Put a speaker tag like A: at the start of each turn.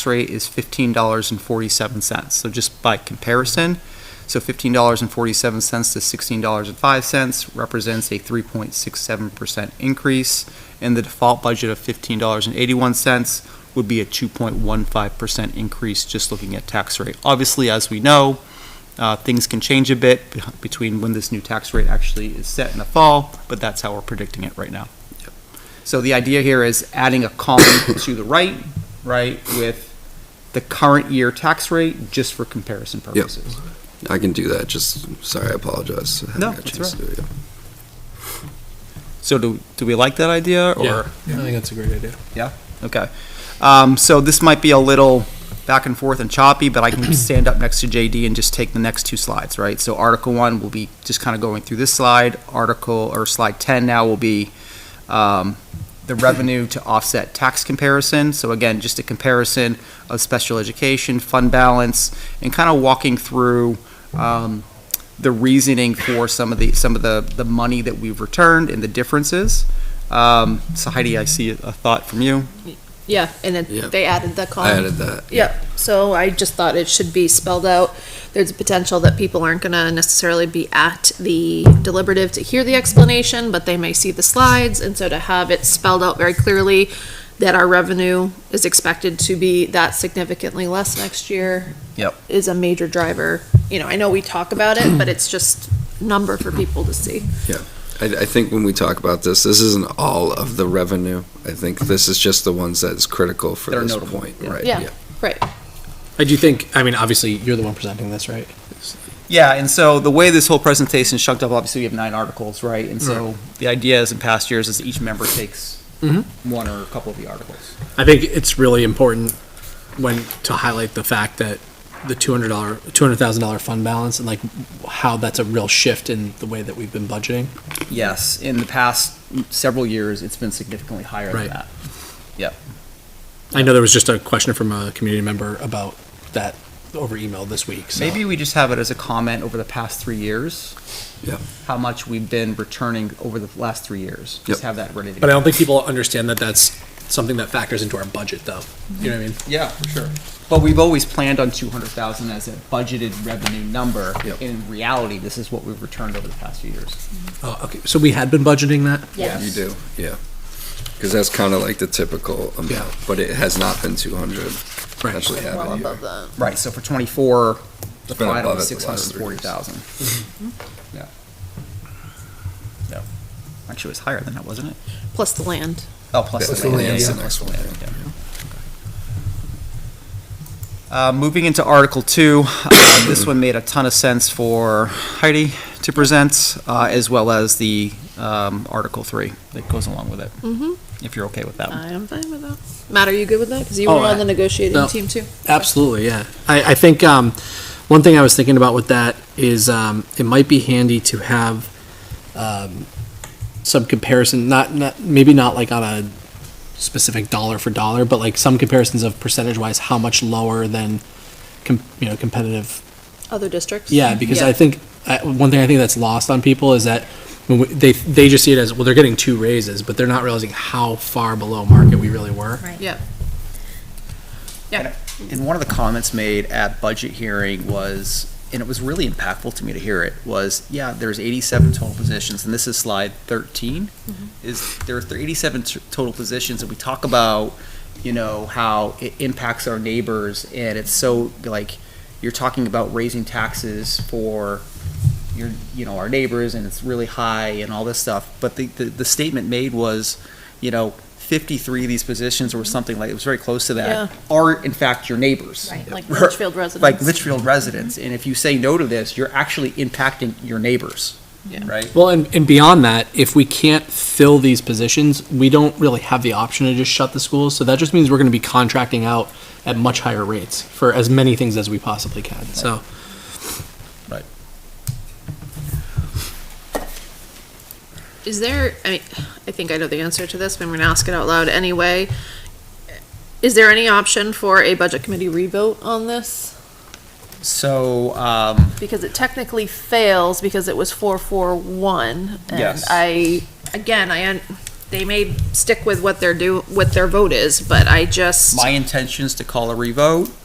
A: rate is fifteen dollars and forty-seven cents. So just by comparison, so fifteen dollars and forty-seven cents to sixteen dollars and five cents represents a three point six seven percent increase, and the default budget of fifteen dollars and eighty-one cents would be a two point one five percent increase just looking at tax rate. Obviously, as we know, uh, things can change a bit be- between when this new tax rate actually is set in the fall, but that's how we're predicting it right now. So the idea here is adding a column to the right, right, with the current year tax rate, just for comparison purposes.
B: I can do that, just, sorry, I apologize. I haven't
A: No,
B: got a
A: that's
B: chance to do it yet.
A: So do, do we like that idea, or?
C: Yeah, I think that's a great idea.
A: Okay. Um, so this might be a little back and forth and choppy, but I can stand up next to JD and just take the next two slides, right? So Article One will be just kind of going through this slide. Article or Slide Ten now will be um, the revenue to offset tax comparison. So again, just a comparison of special education fund balance and kind of walking through. Um, the reasoning for some of the some of the, the money that we've returned and the differences. Um, so Heidi, I see a a thought from you.
D: Yeah, and then
B: Yeah.
D: they added the
B: I
D: column.
B: added that.
D: Yeah, so I just thought it should be spelled out. There's a potential that people aren't gonna necessarily be at the deliberative to hear the explanation, but they may see the slides, and so to have it spelled out very clearly that our revenue is expected to be that significantly less next year.
A: Yep.
D: Is a major driver. You know, I know we talk about it, but it's just number for people to see.
B: I, I think when we talk about this, this isn't all of the revenue. I think this is just the ones that's critical for
A: That are
B: this
A: notable.
B: point, right?
D: Yeah.
C: I do think, I mean, obviously, you're the one presenting this, right?
A: Yeah, and so the way this whole presentation is chunked up, obviously we have nine articles, right? And so the idea is in past years is each member takes
C: Mhm.
A: one or a couple of the articles.
C: I think it's really important when, to highlight the fact that the two hundred dollar, two hundred thousand dollar fund balance and like how that's a real shift in the way that we've been budgeting.
A: Yes, in the past several years, it's been significantly higher than
C: Right.
A: that.
C: I know there was just a question from a community member about that over email this week, so.
A: Maybe we just have it as a comment over the past three years.
B: Yeah.
A: How much we've been returning over the last three years. Just
B: Yep.
A: have that ready to
C: But
A: go.
C: I don't think people understand that that's something that factors into our budget though. You know what I mean?
A: Yeah, for sure. But we've always planned on two hundred thousand as a budgeted revenue number.
B: Yep.
A: In reality, this is what we've returned over the past few years.
C: Oh, okay, so we had been budgeting that?
B: You do, yeah. Because that's kind of like the typical amount, but it has not been 200.
C: Right.
B: Actually have
D: Well
B: it
D: above
B: here.
D: that.
A: Right, so for twenty-four, the
B: It's been
A: final
B: above
A: was
B: it
A: six
B: the
A: hundred
B: last
A: and
B: three
A: forty
B: years.
A: thousand. Yeah. Yeah. Actually, it was higher than that, wasn't it?
D: Plus the land.
A: Oh, plus
B: Plus
A: the
B: the
A: land,
B: land's
A: yeah,
B: the
A: yeah,
B: next
A: plus
B: one,
A: land, yeah. Uh, moving into Article Two, uh, this one made a ton of sense for Heidi to present, uh, as well as the, um, Article Three that goes along with it,
D: Mm-hmm. Uh,
A: if you're okay with that.
D: I am fine with that. Matt, are you good with that? Because you were
C: Oh, I-
D: on the negotiating
C: no.
D: team too.
C: Absolutely, yeah. I, I think um, one thing I was thinking about with that is um, it might be handy to have um, some comparison, not, not maybe not like on a specific dollar for dollar, but like some comparisons of percentage wise, how much lower than com- you know competitive
D: Other districts?
C: Yeah, because I think I, one thing I think that's lost on people is that when we, they they just see it as well, they're getting two raises, but they're not realizing how far below market we really were.
E: Right.
D: Yeah.
A: And one of the comments made at budget hearing was, and it was really impactful to me to hear it, was, yeah, there's 87 total positions, and this is slide 13, is there are 87 t- total positions, and we talk about, you know, how it impacts our neighbors, and it's so, like, you're talking about raising taxes for your, you know, our neighbors, and it's really high and all this stuff. But the, the, the statement made was, you know, 53 of these positions or something like, it was very close to
D: Yeah.
A: that, are in fact your neighbors
E: Right,
D: Like
A: We're-
D: Litchfield residents.
A: like Litchfield residents. And if you say no to this, you're actually impacting your neighbors,
D: Yeah.
A: right?
C: Well, and, and beyond that, if we can't fill these positions, we don't really have the option to just shut the schools. So that just means we're going to be contracting out at much higher rates for as many things as we possibly can. So
D: Is there, I, mean, I think I know the answer to this, but I'm gonna ask it out loud anyway. Is there any option for a budget committee revote on this?
A: So, um,
D: Because it technically fails because it was four, four, one.
A: Yes.
D: And I, again, I, un- they may stick with what their do, what their vote is, but I just.
A: My intention is to call a revote